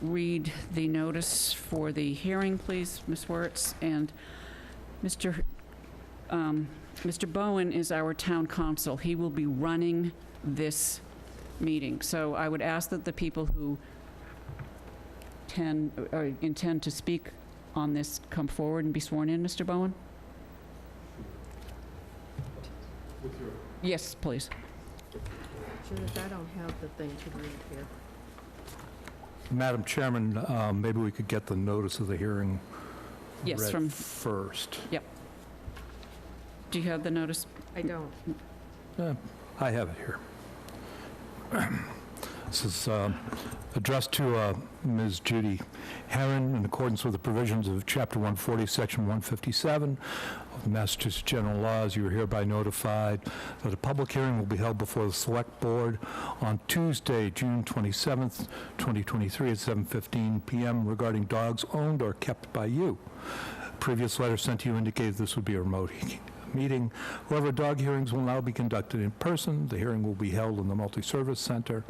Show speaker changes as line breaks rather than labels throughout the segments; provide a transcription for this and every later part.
read the notice for the hearing, please, Ms. Wertz? And Mr. um, Mr. Bowen is our town council. He will be running this meeting. So I would ask that the people who tend, or intend to speak on this come forward and be sworn in, Mr. Bowen? Yes, please.
Judith, I don't have the thing to read here.
Madam Chairman, uh, maybe we could get the notice of the hearing
Yes,
read
from-
first.
Do you have the notice?
I don't.
I have it here. This is uh, addressed to uh, Ms. Judy Herron in accordance with the provisions of Chapter 140, Section 157 of the Massachusetts General Laws. You are hereby notified that a public hearing will be held before the Select Board on Tuesday, June 27th, 2023 at 7:15 PM regarding dogs owned or kept by you. Previous letter sent to you indicated this would be a remote he- meeting. However, dog hearings will now be conducted in person. The hearing will be held in the Multi-Service Center.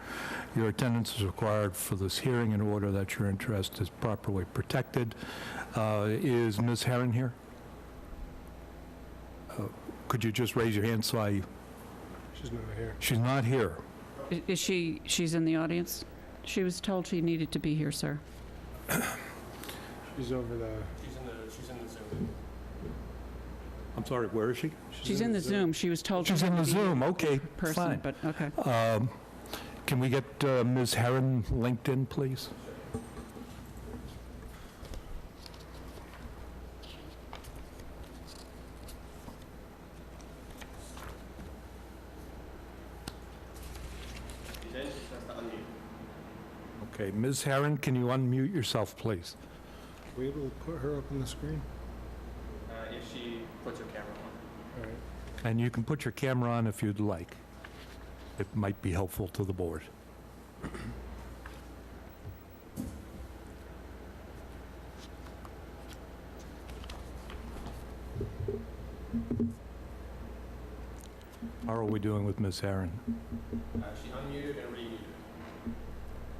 Your attendance is required for this hearing in order that your interest is properly protected. Uh, Is Ms. Herron here? Uh, Could you just raise your hand so I...
She's not here.
She's not here.
I- Is she, she's in the audience? She was told she needed to be here, sir.
She's over the.
I'm sorry, where is she?
She's in the Zoom. She was told she
She's
had
in
to
the
be here in
Zoom, okay,
person,
fine.
but, okay.
Um, Can we get uh, Ms. Herron linked in, please? Okay, Ms. Herron, can you unmute yourself, please?
Are we able to put her up on the screen?
Uh, if she puts her camera on.
All right.
And you can put your camera on if you'd like. It might be helpful to the board. How are we doing with Ms. Aaron?
Uh, she unmuted and remuted.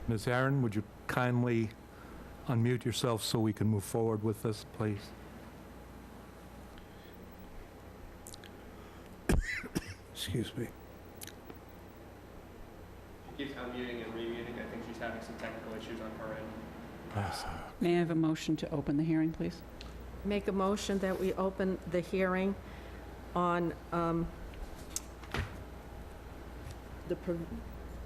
Ms. Aaron, would you kindly unmute yourself so we can move forward with this, please? Excuse me.
She keeps unmuting and remuting. I think she's having some technical issues on her end.
May I have a motion to open the hearing, please?
Make a motion that we open the hearing on um, the, prov-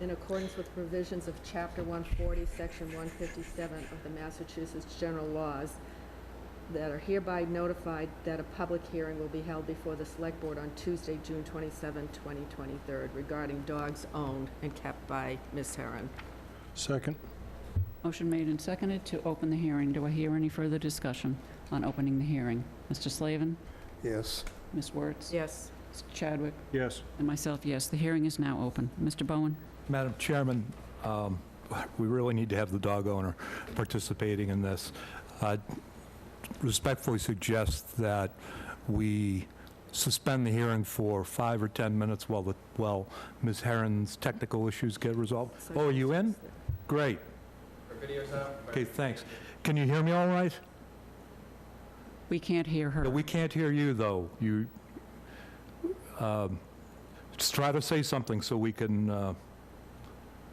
in accordance with provisions of Chapter 140, Section 157 of the Massachusetts General Laws, that are hereby notified that a public hearing will be held before the Select Board on Tuesday, June 27, 2023, regarding dogs owned and kept by Ms. Heron.
Second.
Motion made and seconded to open the hearing. Do I hear any further discussion on opening the hearing? Mr. Slavin,
Yes.
Ms. Wertz?
Yes.
Mr. Chadwick?
Yes.
And myself, yes. The hearing is now open. Mr. Bowen?
Madam Chairman, um, we really need to have the dog owner participating in this. I respectfully suggest that we suspend the hearing for five or 10 minutes while the, while Ms. Herron's technical issues get resolved. Oh, are you in? Great.
Her video's up. but-
Okay, thanks. Can you hear me all right?
We can't hear her.
No, We can't hear you, though. You, um, just try to say something so we can, uh,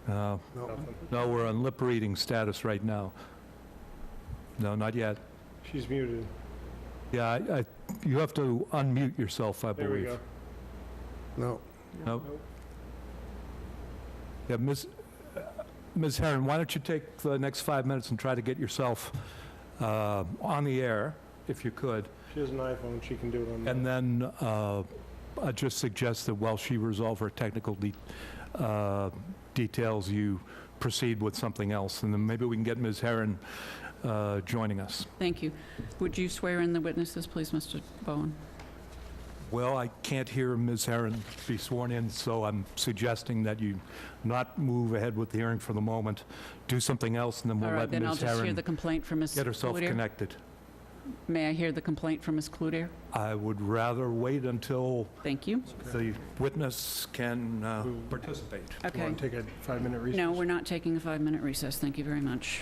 uh,
Nothing.
No, we're on lip reading status right now. No, not yet.
She's muted.
Yeah, I, I- you have to unmute yourself, I
There we
believe.
go. No.
No. Yeah, Ms., uh, Ms. Herron, why don't you take the next five minutes and try to get yourself uh, on the air, if you could?
She has an iPhone. She can do it on.
And
that.
then uh, I just suggest that while she resolves her technical de- uh, details, you proceed with something else, and then maybe we can get Ms. Herron uh, joining us.
Thank you. Would you swear in the witnesses, please, Mr. Bowen?
Well, I can't hear Ms. Herron be sworn in, so I'm suggesting that you not move ahead with the hearing for the moment. Do something else, and then
All
we'll
right,
let
then I'll
Ms.
just hear
Herron
the complaint from Ms.
get herself
Cloutier.
connected.
May I hear the complaint from Ms. Cloutier?
I would rather wait until
Thank you.
the witness can uh,
Who-
participate.
Okay.
Want to take a five-minute recess?
No, we're not taking a five-minute recess. Thank you very much.